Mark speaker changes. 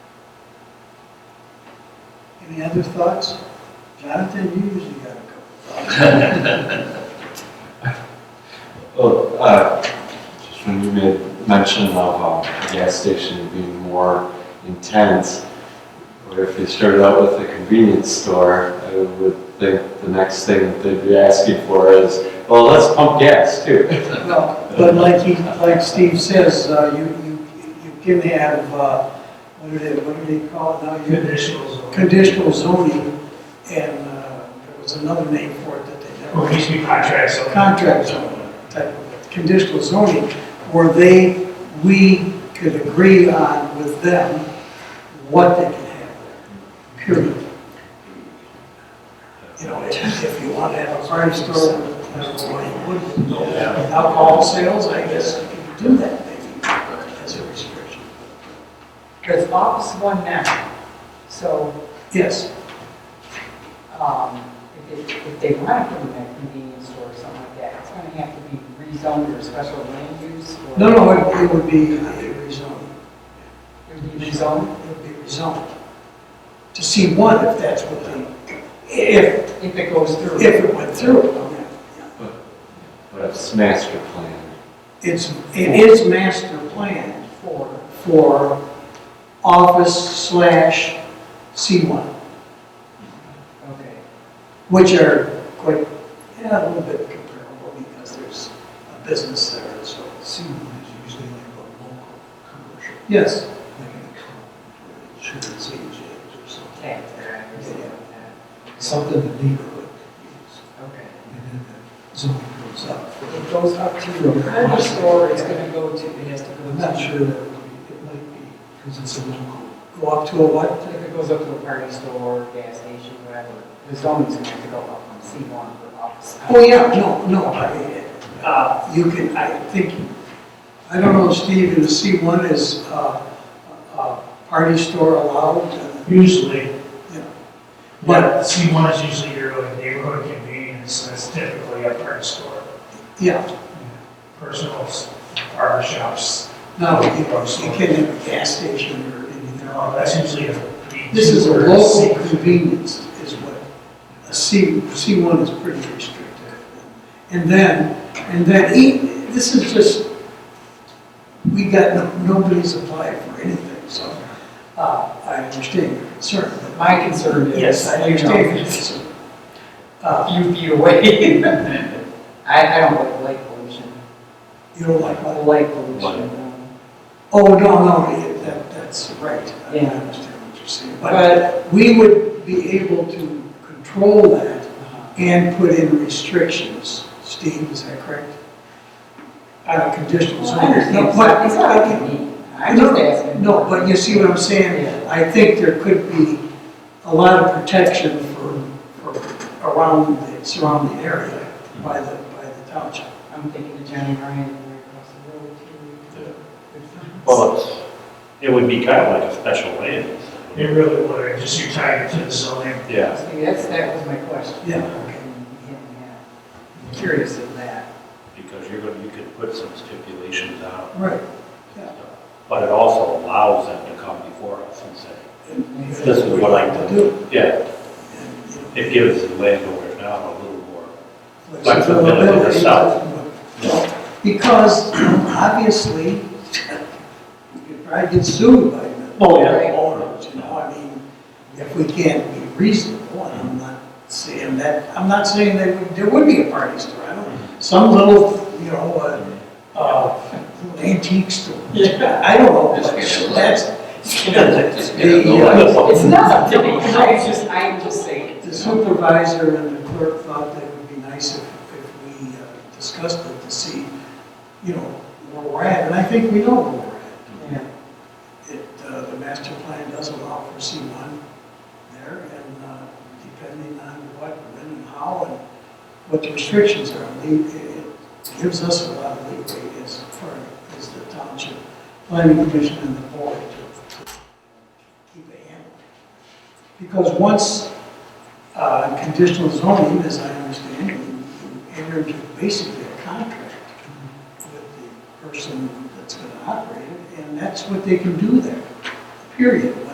Speaker 1: Any other thoughts? Jonathan, you usually got a couple thoughts.
Speaker 2: Well, uh, just when you made mention of uh, the gas station being more intense, or if they started out with a convenience store, I would think the next thing that they'd be asking for is, well, let's pump gas too.
Speaker 1: Well, But like he, like Steve says, uh, you, you, you can have, uh, what do they, what do they call it now? You-
Speaker 3: Conditional zoning.
Speaker 1: Conditional zoning, and, uh, there was another name for it that they
Speaker 3: Well,
Speaker 1: never.
Speaker 3: it used to be contracts, so.
Speaker 1: Contract zoning, type of, conditional zoning, where they, we could agree on with them what they can have there, period. You know, if, if you want to have a fire store, that's why you wouldn't.
Speaker 3: Yeah.
Speaker 1: Alcohol sales, I guess you can do that maybe as a restriction.
Speaker 4: There's office one now, so,
Speaker 1: Yes,
Speaker 4: um, if they, if they want to put in a convenience store or something like that, it's gonna have to be rezoned or special land use or.
Speaker 1: no, no, it- it would be uh, rezoned,
Speaker 4: It would be
Speaker 1: it
Speaker 4: rezoned,
Speaker 1: would be rezoned to C1 if that's what they, if,
Speaker 4: if it goes through.
Speaker 1: if it went through.
Speaker 2: But it's master plan.
Speaker 1: It's, it is master planned
Speaker 4: For,
Speaker 1: for office slash C1,
Speaker 4: okay.
Speaker 1: which are quite, yeah, a little bit comparable because there's a business there, so.
Speaker 5: C one is usually like a local commercial,
Speaker 1: Yes,
Speaker 5: like an economy, insurance agent or something,
Speaker 4: Tax there, I understand that.
Speaker 5: something the neighborhood could use.
Speaker 4: Okay.
Speaker 5: And then the zoning goes up.
Speaker 4: It goes up to the corner store, it's gonna go to, it has to go.
Speaker 5: I'm not
Speaker 4: to-
Speaker 5: sure that it would be- it might be, because it's a local.
Speaker 1: go up to a what?
Speaker 4: If it goes up to a party store, gas station, whatever, the zoning's gonna have to go up from C one for office.
Speaker 1: Oh, yeah, no, no, I, uh, you can, I think, I don't know, Steve, in the C1 is, uh, uh, party store allowed?
Speaker 3: Usually,
Speaker 1: But,
Speaker 3: but C one is usually your like, neighborhood convenience, and it's typically a parts store,
Speaker 1: yeah,
Speaker 3: personal s- barber shops.
Speaker 1: no, you you can't have a gas station or anything
Speaker 3: No,
Speaker 1: like
Speaker 3: that's
Speaker 1: that.
Speaker 3: usually a.
Speaker 1: This is a
Speaker 3: or
Speaker 1: local
Speaker 3: C-
Speaker 1: convenience is what, a C, C1 is pretty restricted. And then, and then, e- this is just, we got, no- nobody's applied for anything, so, uh, I understand your concern, but
Speaker 4: My concern is.
Speaker 1: Yes, I
Speaker 4: you know,
Speaker 1: understand. It's, uh,
Speaker 4: A few feet away. I, I don't like light pollution.
Speaker 1: You don't like
Speaker 4: I
Speaker 1: my,
Speaker 4: Light pollution. um,
Speaker 1: oh, no, no, that, that's right. I
Speaker 4: Yeah.
Speaker 1: understand what you're saying. But
Speaker 4: But,
Speaker 1: we would be able to control that
Speaker 4: uh,
Speaker 1: and put in restrictions. Steve, is that correct? On a conditional
Speaker 4: well,
Speaker 1: zone.
Speaker 4: I understand,
Speaker 1: No,
Speaker 4: it's
Speaker 1: but-
Speaker 4: not, it's not up to me. I'm just asking.
Speaker 1: No, but you see what I'm saying?
Speaker 4: Yeah.
Speaker 1: I think there could be a lot of protection for, for around the surrounding area by the, by the township.
Speaker 4: I'm thinking of Johnny Ryan right across the road too.
Speaker 6: Well, it's- it would be kind of like a special land.
Speaker 3: It really would, just you're tied to the zoning.
Speaker 6: Yeah.
Speaker 4: See, that's, that was my question.
Speaker 1: Yeah.
Speaker 4: And, yeah, I'm Curious of that.
Speaker 6: Because you're going, to you could put some stipulations out,
Speaker 1: Right.
Speaker 6: but it also allows them to come before us and say, this
Speaker 1: This
Speaker 6: is what I do.
Speaker 1: do.
Speaker 6: Yeah,
Speaker 1: And, you know,
Speaker 6: it gives the landowner now a little more.
Speaker 1: flexibility
Speaker 6: Flexibility itself.
Speaker 1: Well, Because obviously, you could probably get sued by the
Speaker 6: Oh, yeah.
Speaker 1: owners, you know, I mean, if we can't be reasonable, and I'm not saying that, I'm not saying that we- there would be a party store, I don't, some little, you know, uh, uh, antique store. I don't know, but that's. The, uh,
Speaker 6: Oh.
Speaker 4: It's not up to me, I'm just, I'm just saying.
Speaker 1: the supervisor and the clerk thought that it would be nice if, if we uh, discussed it to see, you know, where we're at, and I think we know where we're at.
Speaker 4: Yeah.
Speaker 1: It, uh, the master plan does allow for C one there, and, uh, depending on what, when and how, and what the restrictions are, I mean, it it gives us a lot of leeway as far as the township planning commission and the board to, to keep a handle. Because once uh, conditional zoning, as I understand, it, you enter into basically a contract with the person that's going to operate it, and that's what they can do there, period.